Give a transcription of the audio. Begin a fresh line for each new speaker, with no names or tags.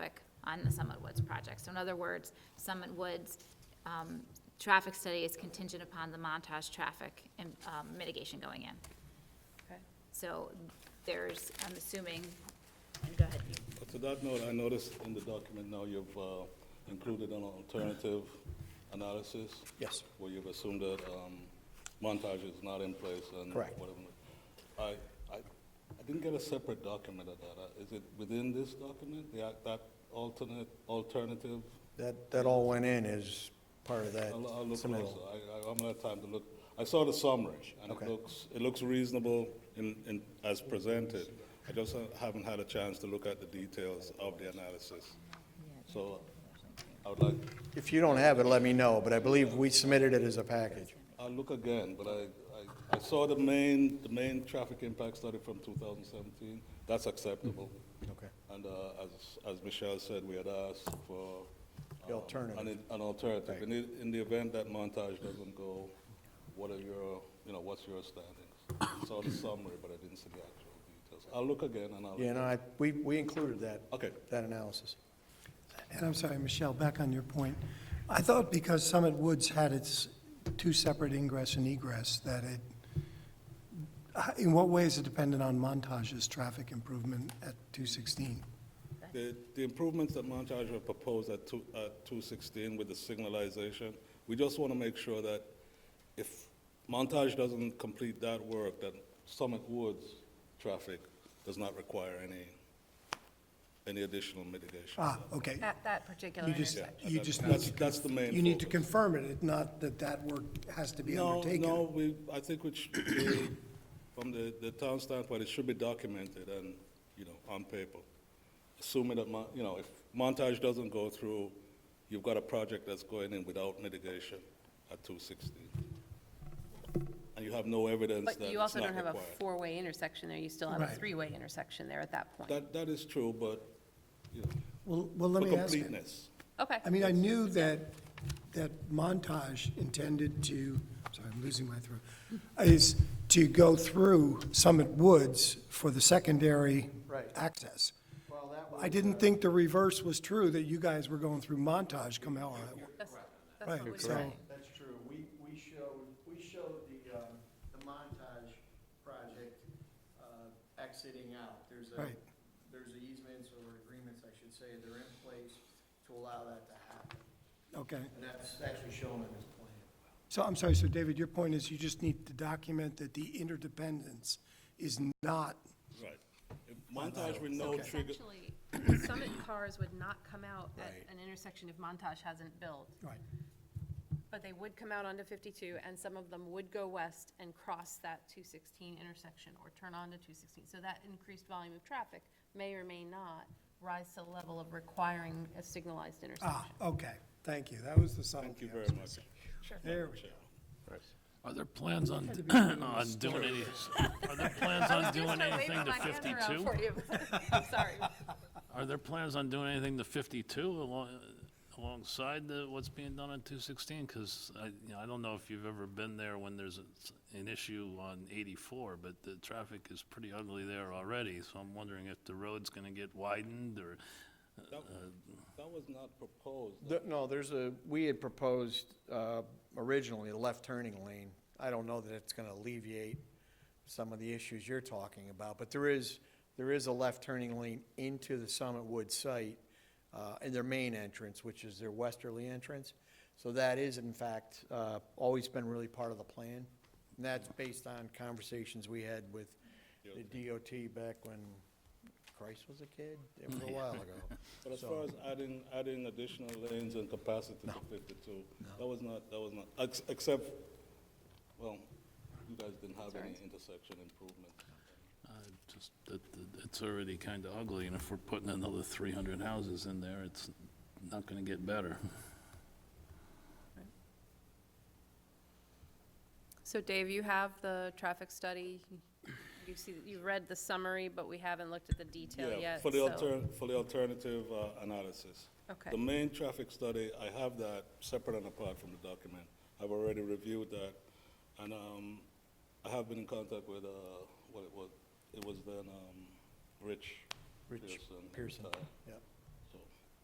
on the Summit Woods project. So in other words, Summit Woods, um, traffic study is contingent upon the Montage traffic and, um, mitigation going in.
Okay.
So there's, I'm assuming, and go ahead, you-
To that note, I noticed in the document now you've uh, included an alternative analysis.
Yes.
Where you've assumed that um, Montage is not in place and
Correct.
whatever. I, I, I didn't get a separate document of that. Uh, Is it within this document, the, that alternate, alternative?
That, that all went in as part of that.
I'll, I'll look
submittal.
closer. I, I haven't had time to look. I saw the summary and
Okay.
it looks, it looks reasonable in, in, as presented. I just haven't had a chance to look at the details of the analysis. So I would like,
If you don't have it, let me know, but I believe we submitted it as a package.
I'll look again, but I, I, I saw the main, the main traffic impact study from 2017. That's acceptable.
Mm-hmm. Okay.
And uh, as, as Michelle said, we had asked for.
The
um,
alternative.
An an alternative.
Right.
In the, in the event that Montage doesn't go, what are your, you know, what's your standings? Saw the summary, but I didn't see the actual details. I'll look again and I'll.
Yeah, no, I, we, we included that.
Okay.
That analysis.
And I'm sorry, Michelle, back on your point. I thought because Summit Woods had its two separate ingress and egress, that it, uh, in what way is it dependent on Montage's traffic improvement at 216?
The, the improvements that Montage have proposed at two, at two sixteen with the signalization, we just want to make sure that if Montage doesn't complete that work, that Summit Woods traffic does not require any, any additional mitigation.
Ah, okay.
At that particular
You just,
intersection.
you just need
That's,
to,
that's the main.
you need to
focus.
confirm it, not that that work has to be undertaken.
No, no, we, I think we should, be- from the, the town standpoint, it should be documented and, you know, on paper. Assuming that, Mon- you know, if Montage doesn't go through, you've got a project that's going in without mitigation at two sixteen. And you have no evidence that it's not required.
But you also don't have a four-way intersection there, you still have a
Right.
three-way intersection there at that point.
That, that is true, but, you know,
Well, well, let
for
me ask you.
completeness.
Okay.
I mean, I knew that, that Montage intended to, sorry, I'm losing my throat, is to go through Summit Woods for the secondary access. I didn't think the reverse was true, that you guys were going through Montage come hell or high water.
That's that's
Right,
what we
so-
said.
That's true. We, we showed, we showed the, um, the montage project, uh, exiting out. There's a,
Right.
there's easements or agreements, I should say, they're in place to allow that to happen.
Okay.
And that's actually shown in this plan.
So I'm sorry, so David, your point is you just need to document that the interdependence is not,
Right. If Montage with no trigger,
Essentially, Summit cars would not come out at an intersection if Montage hasn't built,
right,
but they would come out onto 52, and some of them would go west and cross that 216 intersection or turn onto 216. So that increased volume of traffic may or may not rise to the level of requiring a signalized intersection.
ah, okay, thank you, that was the subtlety.
thank you
I
very
was
much.
missing. There we go.
Are there plans on,
Had to be doing
on
this
doing any, are there plans on doing
Just
anything
waving my hand
to
around
fifty-two?
for you. I'm Sorry.
Are there plans on doing anything to fifty-two along, alongside the, what's being done on two sixteen? Cause I, you know, I don't know if you've ever been there when there's a- an issue on eighty-four, but the traffic is pretty ugly there already, so I'm wondering if the road's gonna get widened or,
That that was not proposed.
The- No, there's a, we had proposed uh, originally a left turning lane. I don't know that it's going to alleviate some of the issues you're talking about, but there is, there is a left turning lane into the Summit Woods site uh, in their main entrance, which is their westerly entrance. So that is in fact uh, always been really part of the plan. And that's based on conversations we had with the DOT back when Christ was a kid, it was a while ago.
But as far as adding, adding additional lanes and capacity to fifty-two, that was not, that was not, ex- except, well, you guys didn't have any intersection improvement.
uh, just, that, that it's already kinda ugly, and if we're putting another three hundred houses in there, it's not gonna get better.
So Dave, you have the traffic study, you see, you've read the summary, but we haven't looked at the detail
Yeah,
yet,
for the
so-
altern, for the alternative uh, analysis.
Okay.
The main traffic study, I have that separate and apart from the document. I've already reviewed that, and um, I have been in contact with, uh, what it was, it was then um, Rich
Rich
Pearson.
Pearson,
uh,
yep.